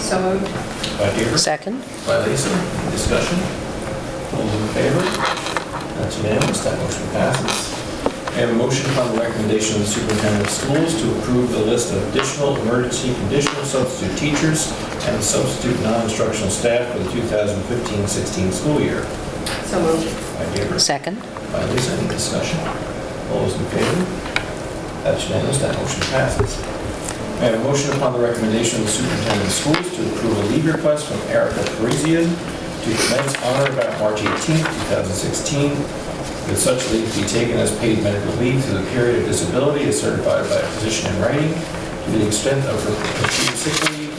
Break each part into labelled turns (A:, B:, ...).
A: So moved.
B: By Deirdre.
C: Second?
B: By Lisa. Discussion? All those in favor? That's unanimous. That motion passes. I have a motion upon the recommendation of the superintendent of schools to approve the list of additional emergency conditional substitute teachers and substitute non-instructional staff for the 2015-16 school year.
A: So moved.
B: By Deirdre.
C: Second?
B: By Lisa, any discussion? All those in favor? That's unanimous, that motion passes. May I have a motion upon the recommendation of the superintendent of schools to approve a leave request from Erica Parisian to commence on or about March 18th, 2016, with such leave be taken as paid medical leave through the period of disability as certified by a physician in writing to the extent of her accrued sick leave,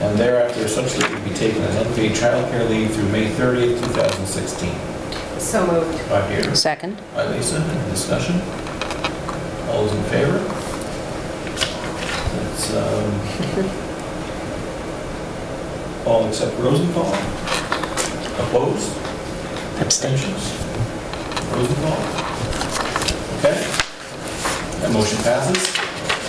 B: and thereafter such leave be taken as unpaid childcare leave through May 30th, 2016.
A: So moved.
B: By Deirdre.
C: Second?
B: By Lisa, any discussion? All those in favor? That's, um, all except Rosenthal. Opposed?
C: Abstention?
B: Abstentions? Rosenthal? Okay. That motion passes.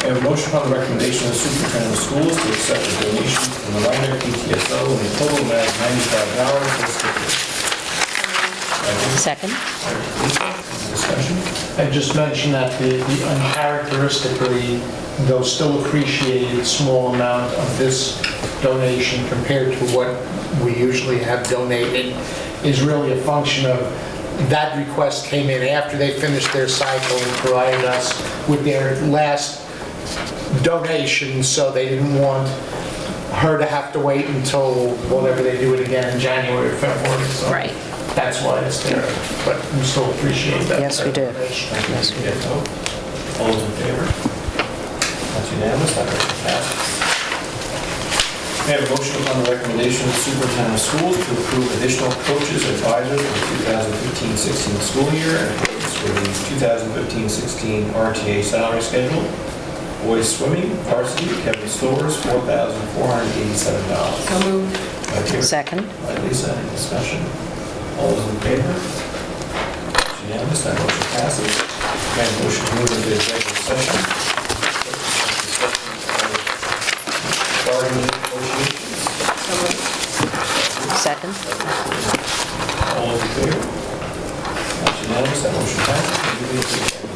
B: I have a motion upon the recommendation of the superintendent of schools to accept a donation from the Ryder PTSO in the total amount of $95 for the school.
C: Second?
B: Discussion?
D: I just mentioned that the the uncharacteristically, though still appreciated, small amount of this donation compared to what we usually have donated is really a function of, that request came in after they finished their cycle and provided us with their last donation, so they didn't want her to have to wait until whatever they do it again in January or February, so.
C: Right.
D: That's why it's there, but we still appreciate that.
C: Yes, we do.
D: donation.
C: Yes, we do.
B: Yes, vote. All those in favor? That's unanimous, that motion passes. May I have a motion upon the recommendation of the superintendent of schools to approve additional coaches advisors for the 2015-16 school year in accordance with the 2015-16 RTA salary schedule? Boys swimming, varsity, Kevin Stowers, $4,487.
A: So moved.
B: By Deirdre.
C: Second?
B: By Lisa, any discussion? All those in favor? It's unanimous, that motion passes. May I have a motion to move into executive session? Bargaining negotiations,
A: So moved.
C: Second?
B: all those in favor? It's unanimous, that motion passes. We move into executive